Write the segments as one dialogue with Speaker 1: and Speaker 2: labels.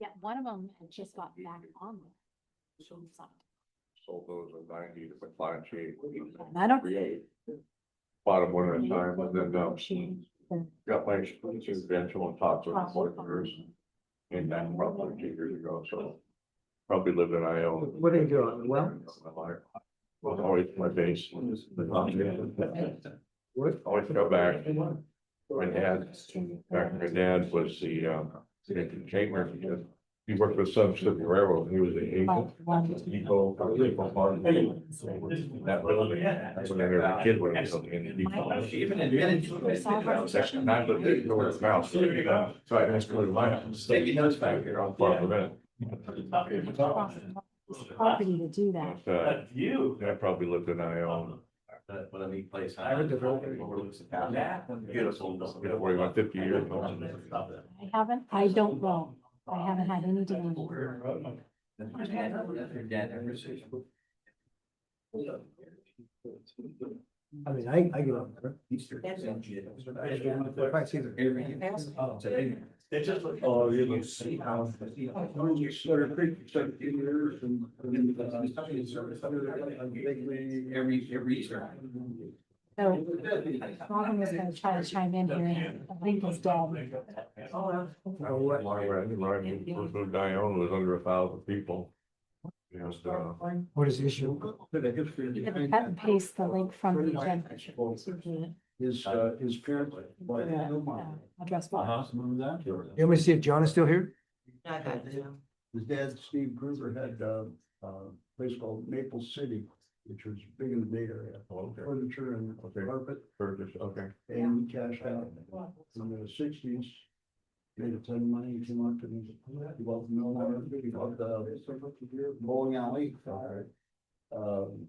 Speaker 1: Yeah, one of them had just got back on. there. She was on-
Speaker 2: sold those at ninety to McLaren Shade.
Speaker 1: and I don't.
Speaker 2: Create. Bought them one at a time, and then, um,
Speaker 1: She- the-
Speaker 2: got my expensive rental on top of the workers, and then roughly two years ago, so. Probably lived in I O.
Speaker 3: What are you doing? Well?
Speaker 2: Was always my base.
Speaker 3: What?
Speaker 2: Always go back. My dad, back, my dad was the, um, in chamber, he worked with Sub Pacific Railroad, he was the agent. Depot, depot farm. That really, that's when I was a kid, when I was in the depot.
Speaker 4: She even admitted to it.
Speaker 2: Section nine, but they know where it's now, so you know, so I asked her to line.
Speaker 4: Maybe knows back here.
Speaker 2: Here on part of it.
Speaker 1: across the Property to do that.
Speaker 2: But, uh,
Speaker 4: That view.
Speaker 2: I probably lived in I own,
Speaker 4: That, what a neat place.
Speaker 3: I would develop it.
Speaker 4: Overlooks the town. Beautiful.
Speaker 2: you know, where about fifty years ago.
Speaker 1: I haven't, I don't know. I haven't had any dealings.
Speaker 3: I mean, I, I get up there. If I see the.
Speaker 4: They just uh, look.
Speaker 5: Oh, you can see how. You sort of creep, sort of years and. and, uh,
Speaker 4: Every, every Easter.
Speaker 1: So Robin was gonna try to chime in here. I think he's dead.
Speaker 3: Oh, what?
Speaker 2: Lyra, Lyra, first moved to I own was under a thousand people. uh, You know, so,
Speaker 3: What is the issue?
Speaker 5: The history
Speaker 1: You can
Speaker 5: behind
Speaker 1: cut and
Speaker 5: that
Speaker 1: paste the link from the agenda.
Speaker 5: Is, uh, his parents.
Speaker 1: The, uh, Address book.
Speaker 5: Remember that?
Speaker 3: You want me to see if John is still here?
Speaker 5: His dad, Steve Gruber, had, uh, uh, place called Maple City, which was big in the Bay Area.
Speaker 2: Oh, okay,
Speaker 5: Furniture and
Speaker 2: okay,
Speaker 5: carpet,
Speaker 2: Burgess, okay.
Speaker 5: and he cashed out. in the sixties. Made a ton of money, he came up and he bought the mill, and he bought the bowling alley. Um,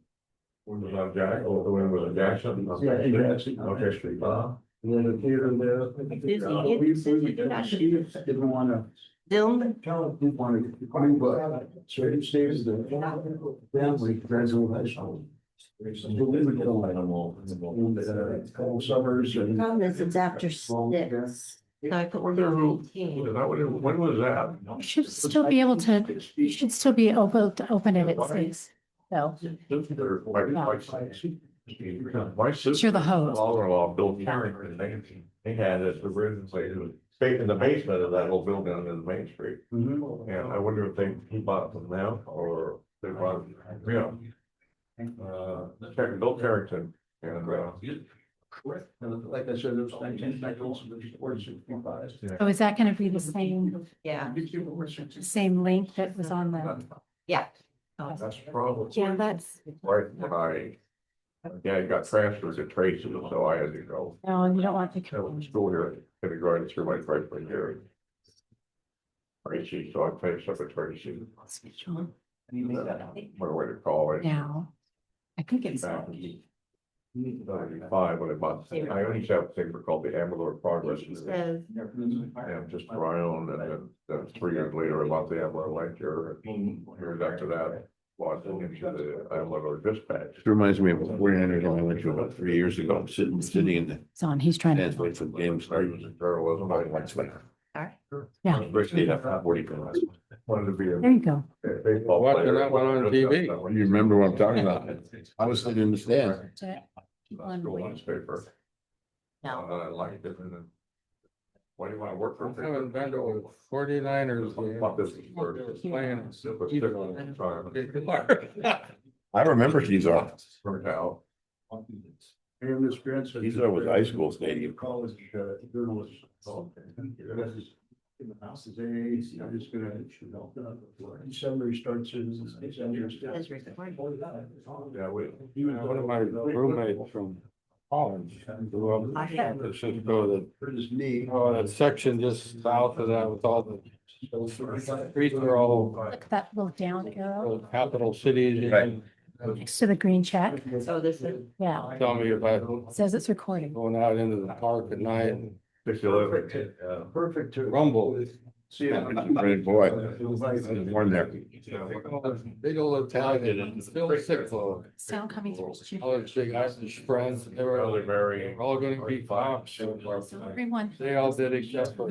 Speaker 2: When was that Jack, Oh, or when was it Jackson?
Speaker 5: Yeah,
Speaker 2: Okay,
Speaker 5: he actually-
Speaker 2: Okay, street, uh,
Speaker 5: and then the theater there. Uh,
Speaker 6: Disney,
Speaker 5: we- we-
Speaker 6: Disney,
Speaker 5: we- Steve Didn't wanna,
Speaker 6: Dylan,
Speaker 5: tell him, didn't wanna, complain, but so he stays the family, graduate high school. So we would go like, in the couple summers and.
Speaker 6: problem is it's after six. So I thought we're doing
Speaker 2: was
Speaker 6: eighteen.
Speaker 2: that what it- when was that?
Speaker 1: You should still be able to, you should still be able to open it at six. So
Speaker 2: Or my- my- My sister.
Speaker 1: the host.
Speaker 2: Father-in-law, Bill Carrington, they, they had this originally, it was fake in the basement of that whole building on the main street. And I wonder if they, he bought it from them or they bought it, you know, uh, Car- Bill Carrington. And, uh,
Speaker 5: Like I said, it was nineteen, I also was born sixty-five.
Speaker 1: so is that gonna be the same,
Speaker 6: Yeah,
Speaker 1: the same link that was on the?
Speaker 6: yeah.
Speaker 2: that's probably.
Speaker 1: Yeah, that's,
Speaker 2: Right, when I, yeah, I got transferred to Tracy, so I had to go,
Speaker 1: no, you don't want the.
Speaker 2: I went to school here, kindergarten through my freshman year. Tracy, so I finished up at Tracy, went away to college.
Speaker 1: Now, I think it's.
Speaker 2: Back in ninety-five, when I bought, I only have a thing for called the Amador Progress. And
Speaker 6: Says,
Speaker 2: just for my own, and then, then three years later, I bought the Amador Lecture, years after that, bought into the Amador Dispatch.
Speaker 7: Reminds me of a forty-niner I went to about three years ago, I'm sitting, sitting in the
Speaker 1: It's on, he's trying
Speaker 7: stands
Speaker 1: to.
Speaker 7: waiting for the game to
Speaker 2: I
Speaker 7: start.
Speaker 2: was in journalism, I went
Speaker 7: Lights went
Speaker 2: to,
Speaker 7: out.
Speaker 6: Alright.
Speaker 1: Yeah.
Speaker 7: Basically, I got 40 for last
Speaker 2: wanted
Speaker 7: one.
Speaker 2: to be a
Speaker 1: There you go.
Speaker 2: baseball
Speaker 7: Watching
Speaker 2: player.
Speaker 7: that one on TV. You remember what I'm talking about? I was sitting in the stands.
Speaker 2: School newspaper.
Speaker 6: no,
Speaker 2: Uh, I liked it and then. Why do you wanna work for?
Speaker 8: I haven't been to a forty-niners game.
Speaker 2: Fuck this bird.
Speaker 8: Playing.
Speaker 2: Super sick all the
Speaker 8: They
Speaker 2: time.
Speaker 8: are.
Speaker 7: I remember Kezar.
Speaker 2: Burnt out.
Speaker 5: And this grandson.
Speaker 7: He's always high school stadium.
Speaker 5: College uh, journalist. This is- In the house is A's, I'm just gonna. December he starts his.
Speaker 6: Says recording.
Speaker 2: Yeah, we.
Speaker 8: One of my roommates from college, grew up
Speaker 6: I
Speaker 8: in San
Speaker 6: have-
Speaker 8: Francisco, that,
Speaker 5: Hurt his knee.
Speaker 8: oh, that section just south of that with all the streets are all
Speaker 1: Look at that little down arrow
Speaker 8: those capital cities.
Speaker 7: Right.
Speaker 1: next to the green check.
Speaker 6: so this is,
Speaker 1: Yeah,
Speaker 8: Tell me if I
Speaker 1: it says it's recording.
Speaker 8: going out into the park at night and
Speaker 2: Sixty eleven.
Speaker 5: Perfect to.
Speaker 8: rumble.
Speaker 5: See him.
Speaker 7: Great boy. Born there.
Speaker 8: Big old Italian, Bill Sicklo,
Speaker 1: Sound coming through. is
Speaker 8: all
Speaker 1: you.
Speaker 8: his big Irish friends, they were
Speaker 2: Elderberry.
Speaker 8: all gonna be cops.
Speaker 1: So everyone
Speaker 8: They all did except for